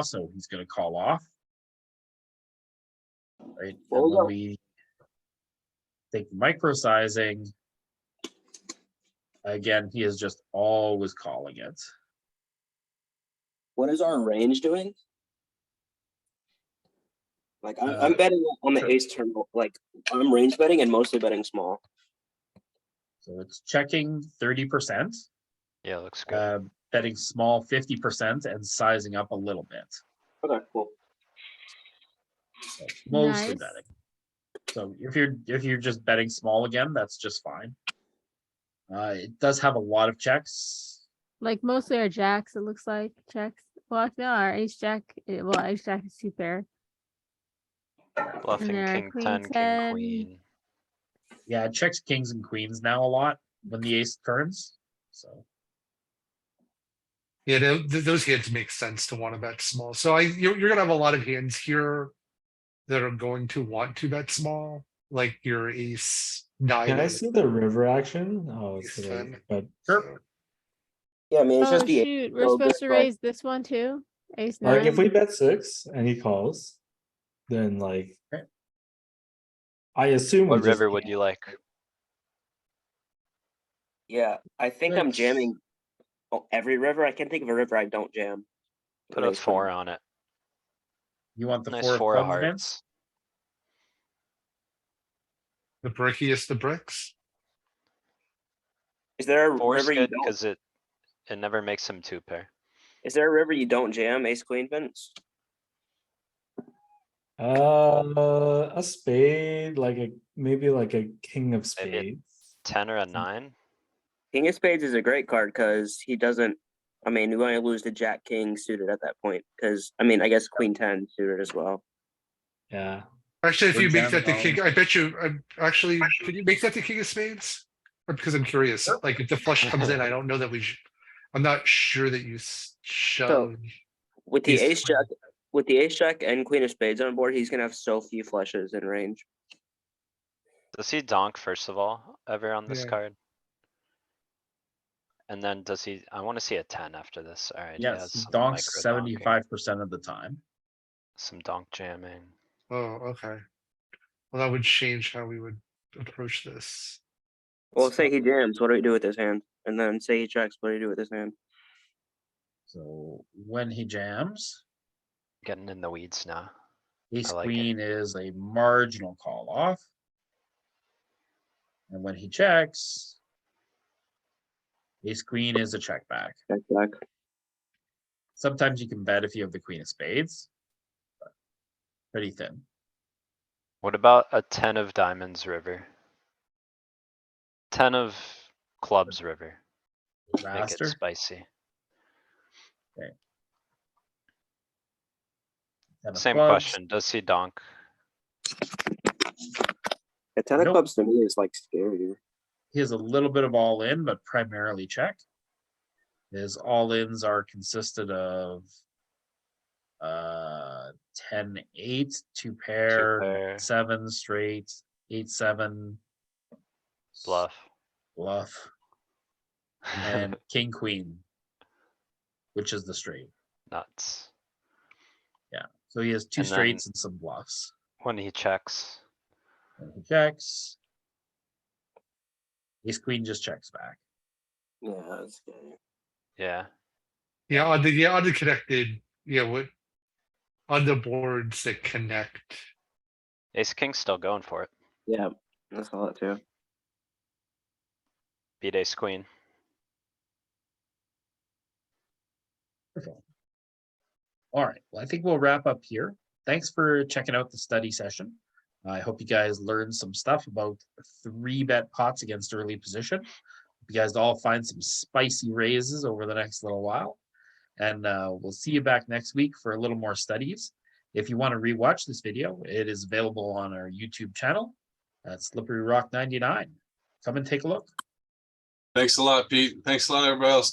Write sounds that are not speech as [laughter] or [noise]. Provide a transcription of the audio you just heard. also he's gonna call off. Right, and Well, we when got- we think micro sizing. Again, he is just always calling it. What is our range doing? Like I'm, I'm Uh, betting on the sure. ace turn. Like I'm range betting and mostly betting small. So it's checking thirty percent, Yeah, looks good. uh, betting small fifty percent and sizing up a little bit. Okay, cool. So Mostly Nice. betting. So if you're, if you're just betting small again, that's just fine. Uh, it does have a lot of checks. Like mostly our jacks, it looks like checks. Well, no, our ace jack, eh, well, ace jack is two pair. Bluffing there, king queen ten, king 10. queen. Yeah, it checks kings and queens now a lot when the ace turns, so. Yeah, tho- th- those hands make sense to want to bet small. So I, you're, you're gonna have a lot of hands here that are going to want to bet small, like your ace nine. Can I is- see the river action? Oh, Yes, it's late, um, but Sure. Yeah, I mean it's Oh, just the eight. shoot, we're so supposed that's to like- raise this one too, ace like if we nine. bet six and he calls, then like. Okay. I assume. we What just river can't. would you like? Yeah, I think I'm That's- jamming. Oh, every river I can think of a river I don't jam. Put a Raise four on it. You want the Nice four four of of clubs, Vince? hearts. The brickiest the bricks. Is there a Four's river you good don't? because it, it never makes him two pair. Is there a river you don't jam? Ace queen Vince. Uh, a spade, like a, maybe like a king of Maybe a- spades. Ten or a nine? King of spades is a great card because he doesn't. I mean, we only lose the jack king suited at that point because I mean I guess queen ten suited as well. Yeah, Actually, if Or you make jam that the down. king, I bet you, I'm actually, could you make that the king of spades? Or Because I'm curious, like if the flush comes in, I [laughs] don't know that we should, I'm not sure that you s- shove. With the Ace ace queen. jack, with the ace jack and queen of spades on board, he's gonna have so few flushes in range. Does he donk first of all, ever on this Yeah. card? And then does he, I wanna see a ten after this, alright. he has Yes, some donks micro donking, seventy-five percent of the time. Some donk jamming. Oh, okay. Well, that would change how we would approach this. Well, say he jams, what do we do with his hand? And then say he checks, what do you do with his hand? So when he jams, Getting in the weeds now. ace I like it. queen is a marginal call off. And when he checks, ace queen is a check back. Check back. Sometimes you can bet if you have the queen of spades. but Pretty thin. What about a ten of diamonds river? Ten of clubs river, make it Raster, spicy. ten of Same clubs. question, does he donk? A ten of of Nope. clubs to me is like scary. He has a little bit of all in, but primarily check. His all ins are consisted of uh, ten, eight, two Two pair, pair, seven straight, eight, seven. s- Bluff. Bluff and king, queen. Which is the straight. [laughs] Nuts. So he has two And then- straights and some bluffs. When he checks, And he checks. Ace queen just checks back. Yeah, that's scary. yeah, Yeah, on the, yeah, on the connected, yeah, what? On the boards that connect, ace king's still going for it, Yeah, that's all it too. beat ace queen. All right, well, I think we'll wrap up here. Thanks for checking out the study session. I hope you guys learned some stuff about three bet pots against early position. Hope You guys all find some spicy raises over the next little while. And uh, we'll see you back next week for a little more studies. If you want to rewatch this video, it is available on our YouTube channel. That's Slippery Rock 99. Come and take a look. Thanks a lot, Pete. Thanks a lot, everybody else.